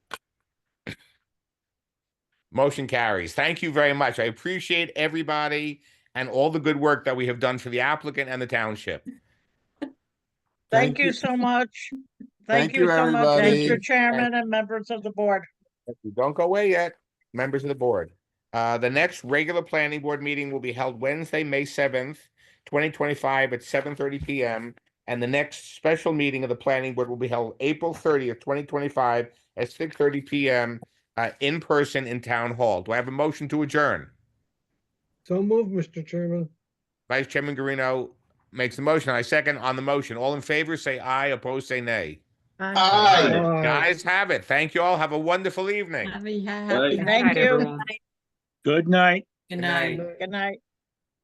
Motion carries. Thank you very much. I appreciate everybody and all the good work that we have done for the applicant and the township. Thank you so much. Thank Thank you you, so much, everybody. Mr. Chairman and members of the board. Don't go away yet, members of the board. Uh, the next regular planning board meeting will be held Wednesday, May seventh, twenty twenty-five at seven thirty PM. And the next special meeting of the planning board will be held April thirtieth, twenty twenty-five at six thirty PM uh, in person in town hall. Do I have a motion to adjourn? So move, Mr. Chairman. Vice Chairman Garino makes the motion. I second on the motion. All in favor, say aye. Opposed, say nay. Aye. Aye. Guys have it. Thank you all. Have a wonderful evening. Have a Right. happy. Thank you. everyone. Good night. Good night. Good night.